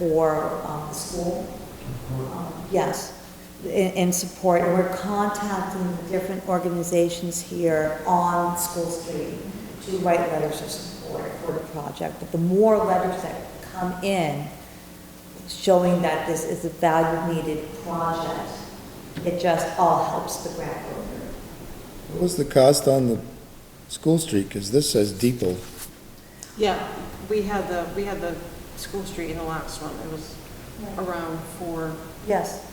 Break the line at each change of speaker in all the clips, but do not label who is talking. for um, the school. Um, Yes, in, in support, and we're contacting the different organizations here on School Street to write letters of support for the project. But the more letters that come in showing that this is a value-needed project, it just all helps the grant go through.
What was the cost on the school street? Because this says depot.
Yeah, we had the, we had the school street in the last one, it was around four,
Yes,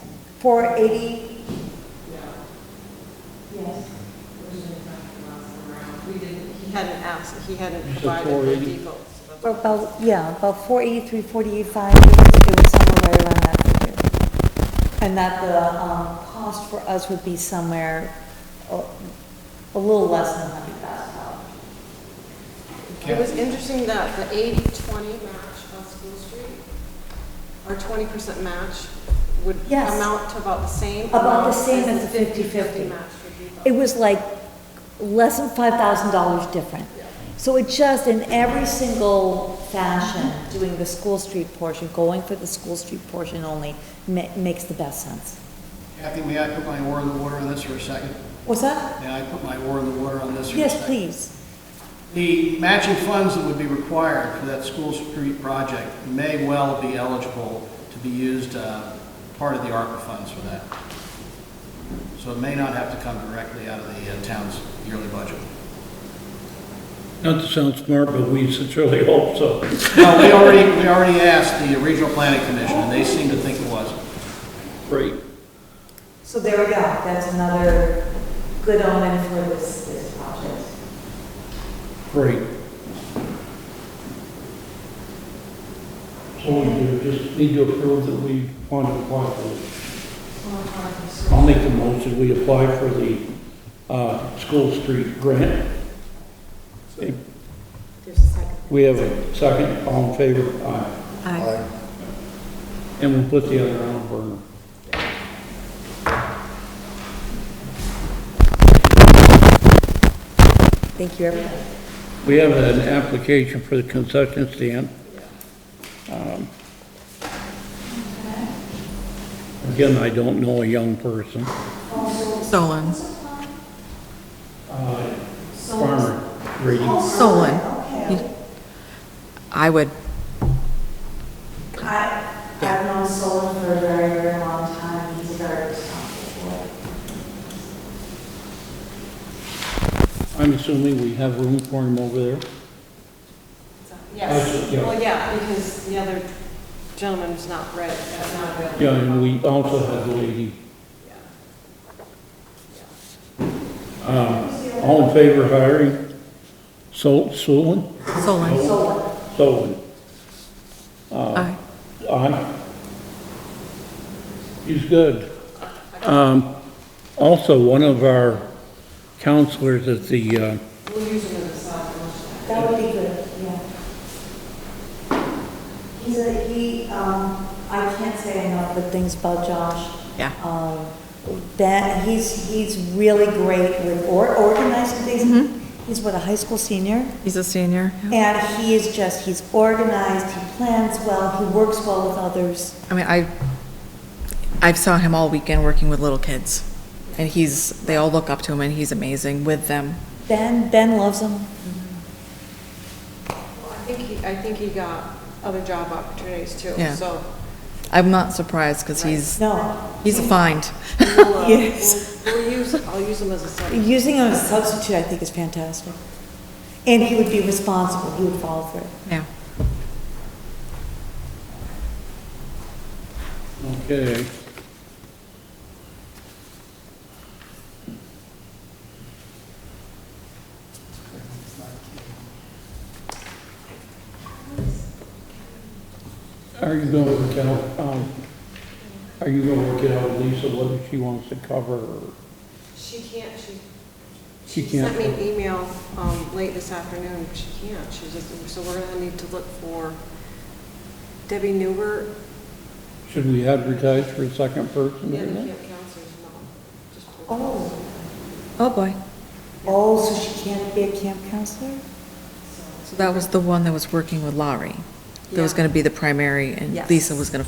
four eighty, yes.
we didn't, he hadn't asked, he hadn't
You said
provided the
480?
depot. so that's-
Or about, yeah, about four eighty-three, forty-eight-five, it was somewhere right around that figure. And that the, um, cost for us would be somewhere uh, a little less than hundred thousand dollars.
It was interesting that the 80-20 match on School Street, our 20% match would
Yes.
amount to about the same.
About the
amount
same as the 50-50.
50-50 match for depot.
It was like less than five thousand dollars different. So it just, in every single fashion, doing the school street portion, going for the school street portion only, ma- makes the best sense.
Kathy, may I put my oar in the water on this for a second?
What's that?
May I put my oar in the water on this for a second?
Yes, please.
The matching funds that would be required for that school street project may well be eligible to be used, uh, part of the ARPA funds for that. So it may not have to come directly out of the uh, town's yearly budget.
Not to sound smart, but we sincerely hope so.
No, we already, we already asked the Regional Planning Commission, and they seem to think it was.
Great.
So there we go, that's another good omen for this, this project.
Great. So we do just need to approve that we want to apply for this. I'll make the motion, we apply for the uh, School Street grant. Okay,
There's a second.
We have a second, all in favor? Aye.
Aye.
And we'll put the other on burner.
Thank you, everybody.
We have an application for the concession stand. Um, Again, I don't know a young person.
Solon.
Farmer, Grady.
Solon. You- I would,
I, I've known Solon for a very, very long time, he's very responsible.
I'm assuming we have room for him over there.
Yes,
Okay, yeah.
well, yeah, because the other gentleman was not ready, was not available.
Yeah, and we also have the lady.
Yeah.
Um, All in favor of hiring Sol- Solon?
Solon.
Solon.
Aye.
Aye. He's good. Um, Also, one of our counselors at the uh,
We'll use it as a side
That would be good, yeah. He's a, he, um, I can't say enough good things about Josh.
Yeah.
Um, that, he's, he's really great with or organizing things. He's what, a high school senior?
He's a senior.
And he is just, he's organized, he plans well, he works well with others.
I mean, I, I saw him all weekend working with little kids. And he's, they all look up to him and he's amazing with them.
Ben, Ben loves him.
I think he, I think he got other job opportunities too,
Yeah.
so.
I'm not surprised because he's,
No,
he's a find.
we'll, uh,
Yes.
We'll we'll use, I'll use him as a side.
using him as a substitute, I think, is fantastic. And he would be responsible, he would follow through.
Yeah.
Okay. Are you gonna work out, um, are you gonna work it out, with Lisa, whether she wants to cover? or-
She can't, she.
She
Sent me an
can't.
email, um, late this afternoon, she can't, she's just, so we're gonna need to look for Debbie Newbert,
Should we advertise for a second person?
the other
or
camp
not?
counselor's mom. Just-
Oh.
Oh, boy.
Oh, so she can't be a camp counselor?
So that was the one that was working with Laurie. that was
Yeah.
gonna be the primary, and
Yes.
Lisa was gonna